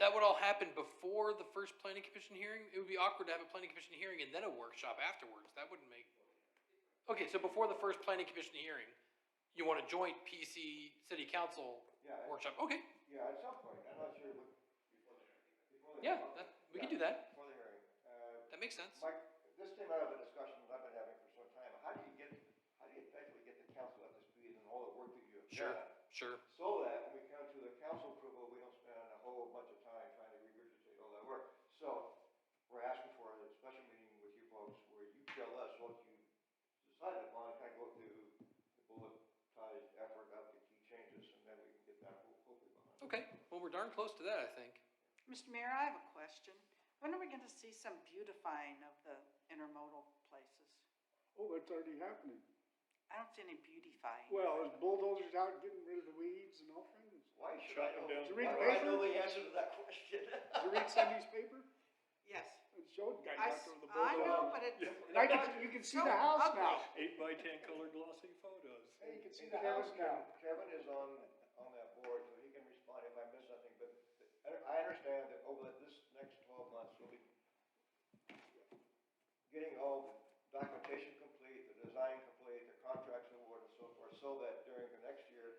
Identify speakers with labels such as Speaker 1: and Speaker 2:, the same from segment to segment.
Speaker 1: that would all happen before the first planning commission hearing, it would be awkward to have a planning commission hearing and then a workshop afterwards, that wouldn't make. Okay, so before the first planning commission hearing, you want a joint PC city council
Speaker 2: Yeah, I-
Speaker 1: workshop, okay,
Speaker 2: Yeah, at some point, I'm not sure what. before the-
Speaker 1: yeah, that, we can do that,
Speaker 2: Before the hearing. Uh,
Speaker 1: that makes sense.
Speaker 2: Mike, this came out of a discussion that I've been having for some time. How do you get, how do you effectively get the council up to speed and all the work that you have
Speaker 1: Sure,
Speaker 2: done?
Speaker 1: sure,
Speaker 2: So that when we come to the council approval, we don't spend a whole bunch of time trying to regurgitate all that work. So, we're asking for a special meeting with you folks where you tell us what you decided upon, kind of go through the bulletized effort of the key changes, and then we can get that ho- hopefully behind. us.
Speaker 1: okay, well, we're darn close to that, I think.
Speaker 3: Mr. Mayor, I have a question. When are we gonna see some beautifying of the intermodal places?
Speaker 4: Oh, that's already happening.
Speaker 3: I don't see any beautifying.
Speaker 4: Well, there's bulldozers out getting rid of the weeds and all kinds.
Speaker 2: Why should I know?
Speaker 4: Did you read the
Speaker 2: Why do I know
Speaker 4: paper?
Speaker 2: the answer to that question?
Speaker 4: Did you read Sunday's paper?
Speaker 3: Yes.
Speaker 4: It showed guy
Speaker 3: I,
Speaker 4: knocked
Speaker 3: s-
Speaker 4: over the
Speaker 3: I know,
Speaker 4: bulldozer.
Speaker 3: but it,
Speaker 4: And I can, you can see the house now.
Speaker 5: Eight by ten color glossy photos.
Speaker 4: Hey, you can see
Speaker 2: And
Speaker 4: the
Speaker 2: Kevin-
Speaker 4: house now.
Speaker 2: Kevin is on, on that board, so he can respond if I miss something, but I- I understand that over the- this next twelve months, we'll be getting all the documentation complete, the design complete, the contracts awarded and so forth, so that during the next year,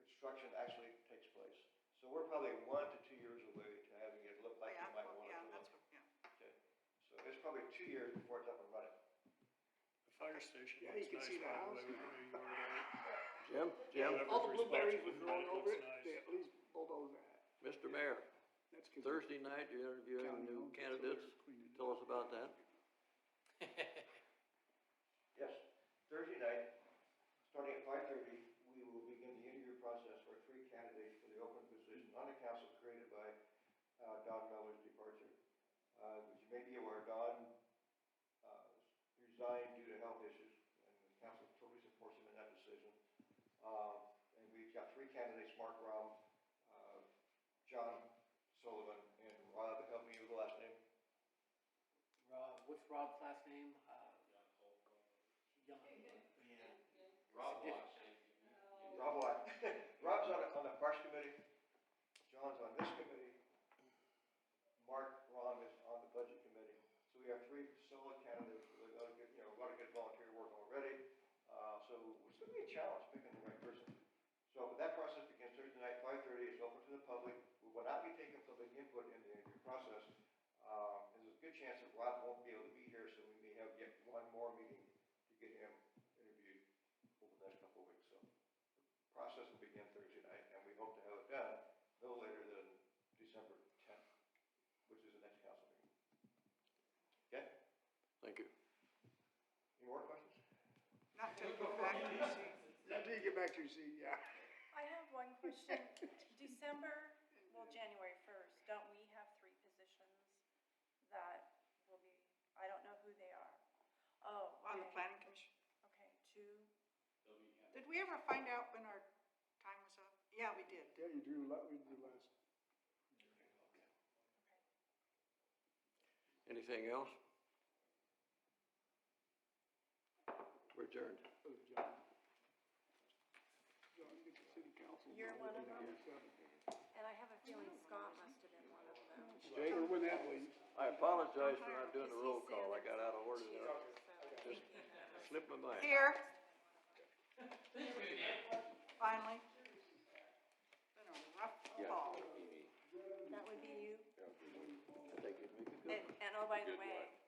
Speaker 2: construction actually takes place. So we're probably one to two years away to having it look like
Speaker 3: Oh, yeah,
Speaker 2: you might want it
Speaker 3: yeah,
Speaker 2: to look.
Speaker 3: that's what, yeah.
Speaker 2: So it's probably two years before it's up and running.
Speaker 5: The fire station
Speaker 4: Yeah, you
Speaker 5: looks
Speaker 4: can
Speaker 5: nice,
Speaker 4: see the
Speaker 5: by the
Speaker 4: house
Speaker 5: way.
Speaker 4: now.
Speaker 6: Jim, Jim,
Speaker 5: Jim?
Speaker 4: All the blueberries
Speaker 5: Whoever's
Speaker 4: were growing
Speaker 5: responsible
Speaker 4: over
Speaker 5: for
Speaker 4: it,
Speaker 5: that,
Speaker 4: they
Speaker 5: it looks nice.
Speaker 4: at least bulldoze that.
Speaker 6: Mr. Mayor,
Speaker 4: That's good.
Speaker 6: Thursday night, you're interviewing
Speaker 4: County
Speaker 6: new
Speaker 4: owns it, so they're
Speaker 6: candidates.
Speaker 4: cleaning it
Speaker 6: Tell
Speaker 4: up.
Speaker 6: us about that.
Speaker 2: Yes, Thursday night, starting at five thirty, we will begin the interview process for three candidates for the open position on the council created by, uh, Don Miller's departure. Uh, as you may be aware, Don, uh, resigned due to health issues, and the council totally supports him in that decision. Uh, and we've got three candidates, Mark Rom, uh, John Sullivan, and Rob, help me with the last name,
Speaker 7: Rob, what's Rob's last name? Uh, Young. Rob Watts.
Speaker 2: Rob Black. Rob's on, on the Parks Committee, John's on this committee, Mark Ron is on the Budget Committee. So we have three solid candidates, with a lot of good, you know, a lot of good volunteer work already. Uh, so it's gonna be a challenge picking the right person. So that process begins Thursday night, five thirty, it's open to the public. We will not be taking public input in the interview process. Um, there's a good chance that Rob won't be able to be here, so we may have yet one more meeting to get him interviewed over the next couple of weeks, so process will begin Thursday night, and we hope to have it done no later than December tenth, which is the next council meeting. Okay,
Speaker 6: Thank you.
Speaker 2: any more questions?
Speaker 3: Not to go back to the machine.
Speaker 4: Until you get back to your seat, yeah.
Speaker 8: I have one question. December, well, January first, don't we have three positions that will be, I don't know who they are. Oh.
Speaker 3: on the
Speaker 8: okay.
Speaker 3: planning commission.
Speaker 8: Okay, two.
Speaker 3: Did we ever find out when our time was up? Yeah, we did.
Speaker 4: Yeah, you drew, la- we drew last.
Speaker 6: Anything else? We're adjourned.
Speaker 4: Oh, John. John, get the city council.
Speaker 8: You're one of them?
Speaker 4: Yeah.
Speaker 8: And I have a feeling Scott must have been one of them.
Speaker 4: Or when that leaves.
Speaker 6: I apologize for not doing the roll call. I got out of order there. Just slipped my mind.
Speaker 3: Here. Finally. Been a rough fall.
Speaker 8: That would be you.
Speaker 6: I think it'd make a good
Speaker 8: And,
Speaker 6: one.
Speaker 8: and oh, by the way,